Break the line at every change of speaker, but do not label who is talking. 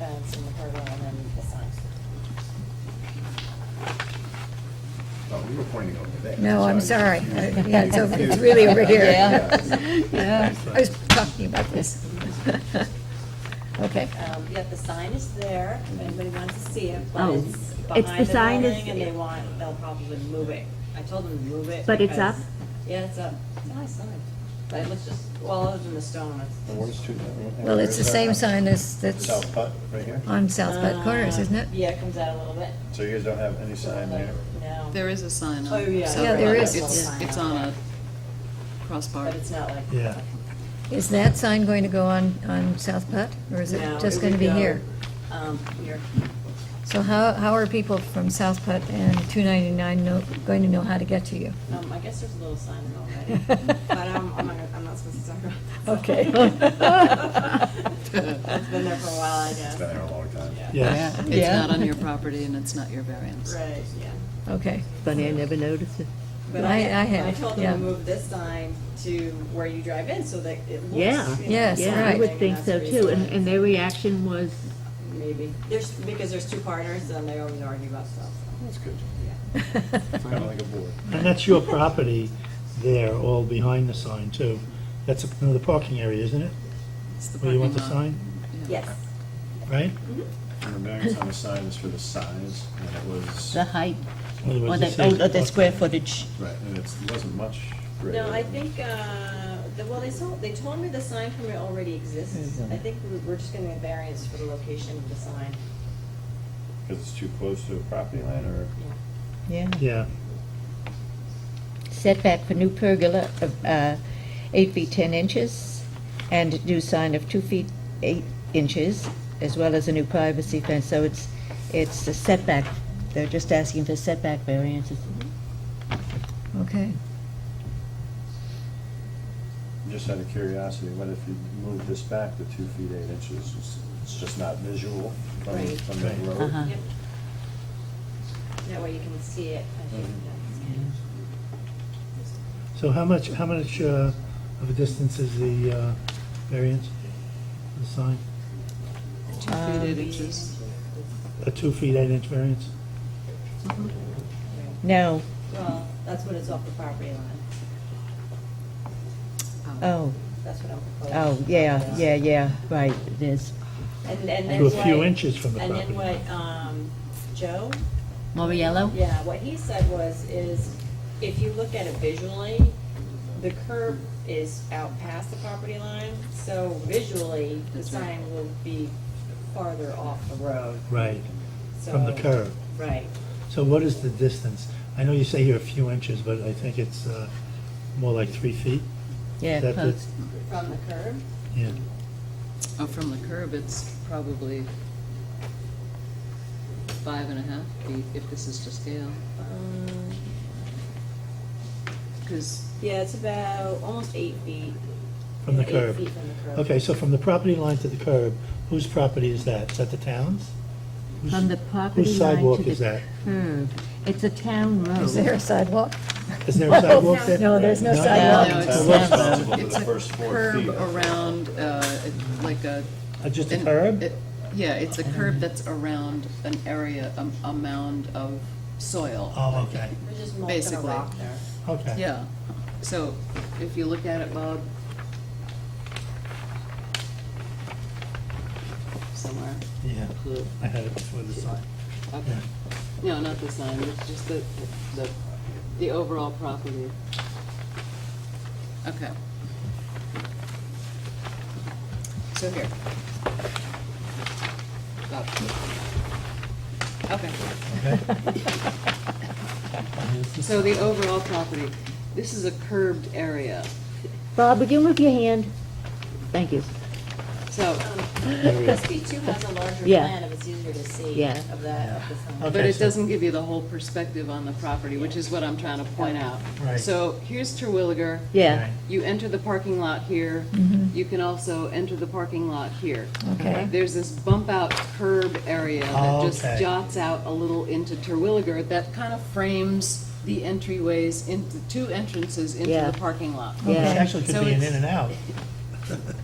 in the hurdle and then assigned.
No, Oh, we were pointing over there.
No, I'm
So
sorry.
I-
Uh, Yeah, it's over, it's really over here. Yeah, I was talking about this. Okay.
Um, Yeah, the sign is there, if anybody wants to see it, but
Oh,
it's
it's- the
behind the
sign is-
building and they want, they'll probably move it. I told them to move it.
But it's
because-
up?
Yeah, it's up. It's a nice sign. But it looks just, well, other than the stone,
And
it's.
where's two-
Well, it's the same sign as, that's
South Putt, right here?
on South Bud Corners, isn't it?
Uh, Yeah, it comes out a little bit.
So you guys don't have any sign there?
No.
There is a sign on.
Oh, yeah.
South
Yeah, there
Broad.
is.
It's,
Yeah.
it's on a crossbar.
But it's not like.
Yeah.
Is that sign going to go on, on South Putt, or is it
No,
just
would
going to be
go,
here?
Um, here.
So how, how are people from South Putt and 299 know, going to know how to get to you?
Um, I guess there's a little sign already, but um, I'm not, I'm not supposed to talk about that.
Okay.
It's been there for a while, I
It's
guess.
been there a long time.
Yeah.
It's not on your property and it's not your variance.
Right, yeah.
Okay.
Funny, I never noticed it.
But
I- I have,
I told them
yeah.
to move this sign to where you drive in so that it looks.
Yeah.
you know,
Yes,
Yeah, I
right.
would think so
That's
too, and,
reasonable.
and their reaction was,
Maybe. There's, because there's two partners and they always argue about stuff.
That's good. It's kind of like a board.
And that's your property there, all behind the sign too. That's another parking area, isn't it?
It's the
Where Oh, you want the
parking lot.
sign,
Yeah.
Yes. Mm-hmm.
right?
And the variance on the sign is for the size, and it was,
The height,
In other words,
or
it
the,
says
or the
parking.
square footage.
right, and it's, it wasn't much greater.
No, I think, uh, the- well, they told, they told me the sign permit already exists. I think we- we're just gonna get variance for the location of the sign.
Because it's too close to a property line, or?
Yeah.
Yeah.
Yeah,
Setback for new pergola of uh, eight feet 10 inches, and new sign of two feet eight inches, as well as a new privacy fence, so it's, it's a setback. They're just asking for setback variances.
Okay.
Just out of curiosity, what if you move this back to two feet, eight inches? It's- It's just not visual from,
Right.
from the
Right.
road.
Uh-huh.
Yep. That way you can see it. I think
so how much, how much uh, of a distance is the uh, variance, the sign?
Two feet,
Um,
eight inches.
A two feet, eight inch variance?
No,
that's- Well, that's what it's off the property line.
oh,
That's what I'm proposing.
oh, yeah, yeah, yeah, right, it is.
And, and then
To a
what.
few inches from the
And then
property.
what, um, Joe,
Moriello?
yeah, what he said was, is if you look at it visually, the curb is out past the property line, so visually, the
That's right.
sign will be farther off the road,
Right,
so.
from the curb.
Right.
So what is the distance? I know you say here a few inches, but I think it's uh, more like three feet?
Yeah,
That the-
close.
From the curb?
Yeah,
Oh, from the curb, it's probably five and a half feet if this is to scale,
Um,
because
Yeah, it's about almost eight feet.
from the
Yeah, eight
curb.
feet from the curb.
Okay, so from the property line to the curb, whose property is that? Is that the town's? Whose-
from the property
Whose
line
sidewalk
to
is
the
that?
Hmm.
curb. It's a town road.
Is there a sidewalk?
Is there a sidewalk there?
No, there's no
No.
sidewalk.
No, it's
Town's
not.
responsible for
It's
the
a
first four
curb
feet.
around, uh, it- like a.
Uh, Just a
an-
curb?
it- Yeah, it's a curb that's around an area, a- a mound of soil.
Oh, okay,
We're just molting a
Basically.
rock there.
okay.
Yeah, so if you look at it, Bob, somewhere,
Yeah,
Blue.
I had it before the sign.
okay.
Yeah.
No, not the sign, it's just the, the, the overall property. Okay. So here. Got it. Okay. So the overall property, this is a curved area,
Bob, begin with your hand. Thank you.
so,
SB two has a larger
Yeah.
plan, if it's easier to see
Yeah.
of the, of the sign.
but
Okay,
it
so-
doesn't give you the whole perspective on the property, which is what I'm trying to point out.
Right.
So here's Terwilliger.
Yeah.
You enter the parking lot here,
Mm-hmm.
you can also enter the parking lot here.
Okay.
There's this bump out curb area that just
Okay.
jots out a little into Terwilliger that kind of frames the entryways into, two entrances into
Yeah.
the parking lot.
Yeah.
It actually
So
could be an
it's-
in and out.